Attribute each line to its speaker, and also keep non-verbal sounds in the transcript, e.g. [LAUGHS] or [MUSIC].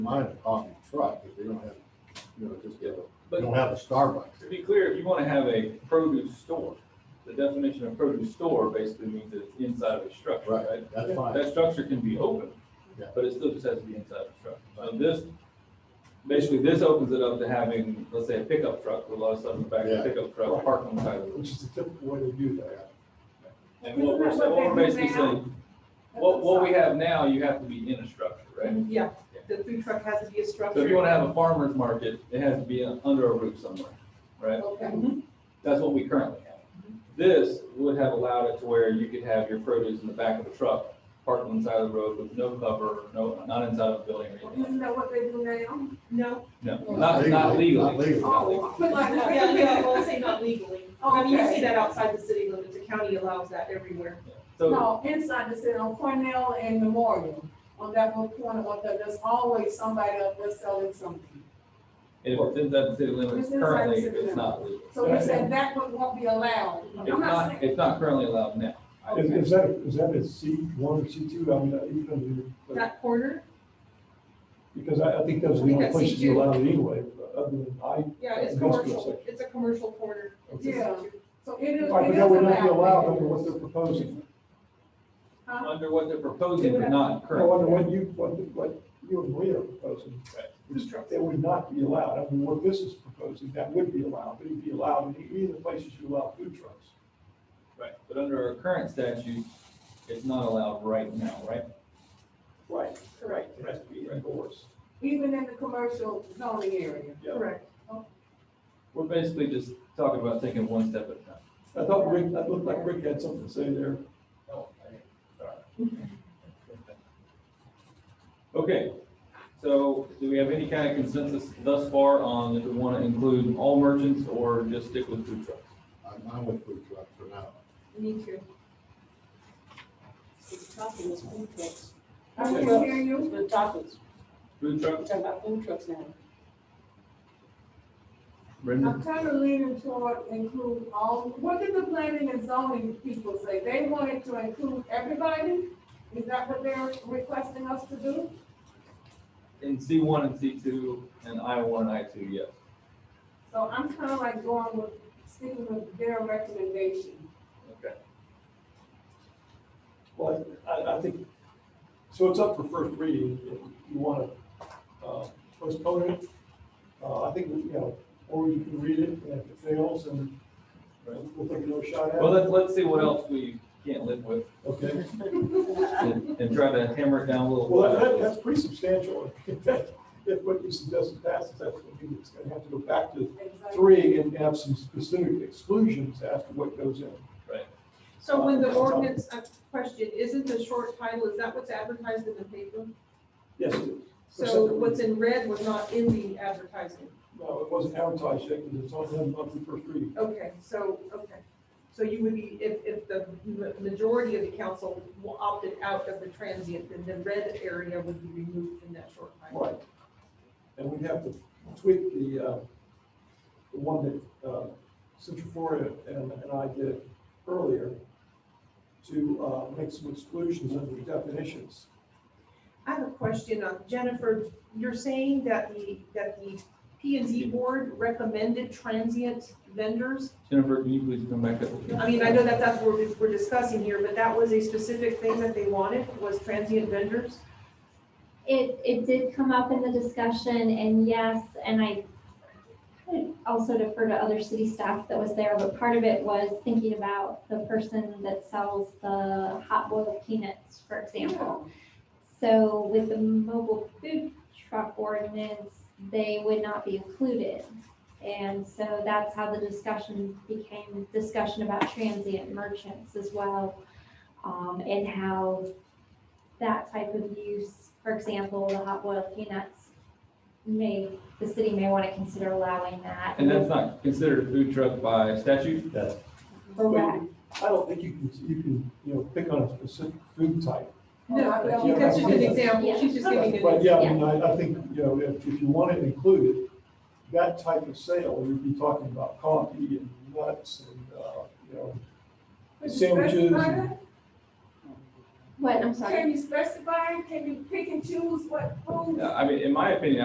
Speaker 1: mind a coffee truck if they don't have, you know, just, get a-
Speaker 2: But-
Speaker 1: don't have a Starbucks
Speaker 2: To
Speaker 1: here.
Speaker 2: be clear, if you want to have a produce store, the definition of produce store basically means it's inside of a structure,
Speaker 1: Right,
Speaker 2: right?
Speaker 1: that's fine.
Speaker 2: That structure can be open,
Speaker 1: Yeah.
Speaker 2: but it still just has to be inside the structure. So this, basically, this opens it up to having, let's say, a pickup truck with a lot of stuff in the back,
Speaker 1: Yeah.
Speaker 2: a pickup truck,
Speaker 1: Right.
Speaker 2: park on the side of the road.
Speaker 1: Which is the typical way they do that.
Speaker 2: And what
Speaker 3: Isn't
Speaker 2: we're,
Speaker 3: that
Speaker 2: sa-
Speaker 3: what
Speaker 2: what we're
Speaker 3: they do
Speaker 2: basically
Speaker 3: now?
Speaker 2: saying, what, what we have now, you have to be in a structure, right?
Speaker 3: Mm, Yeah, the food truck has to be a structure.
Speaker 2: So if you want to have a farmer's market, it has to be under a roof somewhere, right?
Speaker 3: Okay.
Speaker 2: That's what we currently have. This would have allowed it to where you could have your produce in the back of a truck, parked on the side of the road with no cover, no, not inside of a building or anything. like
Speaker 4: Isn't that what they do now?
Speaker 2: [LAUGHS]
Speaker 3: No.
Speaker 2: that. No, not, not
Speaker 1: Legally,
Speaker 2: legally.
Speaker 1: not legally.
Speaker 2: Not legally.
Speaker 3: But like, yeah, yeah, I won't say not legally. Oh, I mean, you see that outside the city limits, the county allows that everywhere.
Speaker 2: So,
Speaker 4: No, inside the city, on Cornell and Memorial, on that little corner, on that, there's always somebody up there selling something.
Speaker 2: if it's inside the city limits
Speaker 4: It's inside the
Speaker 2: currently,
Speaker 4: city
Speaker 2: it's not legal.
Speaker 4: So we said that would, won't be allowed.
Speaker 2: It's
Speaker 4: I'm not
Speaker 2: not,
Speaker 4: saying,
Speaker 2: it's not currently allowed now.
Speaker 5: Is, is that, is that a C one or C two, I mean, uh, even,
Speaker 3: That corner,
Speaker 5: because I, I think those are
Speaker 3: I
Speaker 5: the
Speaker 3: think
Speaker 5: only
Speaker 3: that's
Speaker 5: places
Speaker 3: C2.
Speaker 5: you allow it anyway, other than I.
Speaker 3: yeah, it's
Speaker 5: industrial
Speaker 3: commercial,
Speaker 5: section.
Speaker 3: it's a commercial corner. It's just-
Speaker 4: Yeah. so it is, it is
Speaker 5: All right, but that would not be allowed under what
Speaker 4: allowed.
Speaker 5: they're proposing.
Speaker 4: Huh?
Speaker 2: Under what they're proposing, but not
Speaker 5: No, under
Speaker 2: currently.
Speaker 5: what you, what, what you and Leah are proposing. That would not be allowed. I mean, what this is proposing, that would be allowed, but it'd be allowed in either places you allow food trucks.
Speaker 2: Right, but under our current statute, it's not allowed right now, right?
Speaker 5: Right, right. It has to be enforced.
Speaker 4: Even in the commercial zoning area.
Speaker 5: Yeah.
Speaker 3: Correct.
Speaker 2: We're basically just talking about taking one step at a time.
Speaker 5: I thought Rick, I looked like Rick had something to say there.
Speaker 2: Okay, so do we have any kind of consensus thus far on if we want to include all merchants or just stick with food trucks?
Speaker 1: I'm, I'm with food truck for now.
Speaker 3: Me too.
Speaker 2: Uh,
Speaker 6: Talking is food trucks.
Speaker 4: I can hear you.
Speaker 6: We're talking,
Speaker 2: Food
Speaker 6: we're
Speaker 2: trucks,
Speaker 6: talking about food trucks now.
Speaker 2: Brendan?
Speaker 4: I'm kind of leaning toward include all, what did the planning and zoning people say? They wanted to include everybody? Is that what they're requesting us to do?
Speaker 2: In C one and C two and I one and I two, yes.
Speaker 4: So I'm kind of like going with, sticking with their recommendation.
Speaker 2: Okay.
Speaker 5: Well, I, I think, so it's up for first reading, if you want to postpone it. Uh, I think, you know, or you can read it, and if it fails, and we'll take another shot at it.
Speaker 2: Well, let's, let's see what else we can't live with
Speaker 5: Okay,
Speaker 2: and and try to hammer it down a little.
Speaker 5: well, that, that's pretty substantial. [LAUGHS] If that- if what you suggest passes, that's going to be, it's going to have to go back to three and have some specific exclusions as to what goes in.
Speaker 3: So when the ordinance, uh, question, isn't the short title, is that what's advertised in the paper?
Speaker 5: Yes, it is.
Speaker 3: So what's in red was not in the advertisement.
Speaker 5: no, it wasn't advertised yet, because it's on, on the first reading.
Speaker 3: Okay, so, okay. So you would be, if, if the ma- majority of the council wa- opted out of the transient, then the red area would be removed in that short time.
Speaker 5: Right. And we'd have to tweak the, uh, the one that, uh, Central Florida and, and I did earlier to, uh, make some exclusions under the definitions.
Speaker 3: I have a question on, Jennifer, you're saying that the, that the P and Z board recommended transient vendors?
Speaker 2: Jennifer, can you please come back up?
Speaker 3: I mean, I know that that's what we're- we're discussing here, but that was a specific thing that they wanted, was transient vendors?
Speaker 7: It, it did come up in the discussion and yes, and I could also defer to other city staff that was there, but part of it was thinking about the person that sells the hot boiled peanuts, for example. So with the mobile food truck ordinance, they would not be included. And so that's how the discussion became discussion about transient merchants as well. Um, and how that type of use, for example, the hot boiled peanuts, may, the city may want to consider allowing that.
Speaker 2: And that's not considered a food truck by statute?
Speaker 5: That's.
Speaker 7: Correct.
Speaker 5: I don't think you can, you can, you know, pick on a specific food type.
Speaker 3: No, that's just an example, she's just giving an
Speaker 5: But yeah, I mean, I, I think, you know, if, if you want it included, that type of sale, you'd be talking about coffee and nuts and, uh, you know,
Speaker 4: Could you
Speaker 5: Sandwiches.
Speaker 4: specify that?
Speaker 7: What, I'm sorry.
Speaker 4: Can you specify, can you pick and choose what foods?
Speaker 2: Yeah, I mean, in my opinion,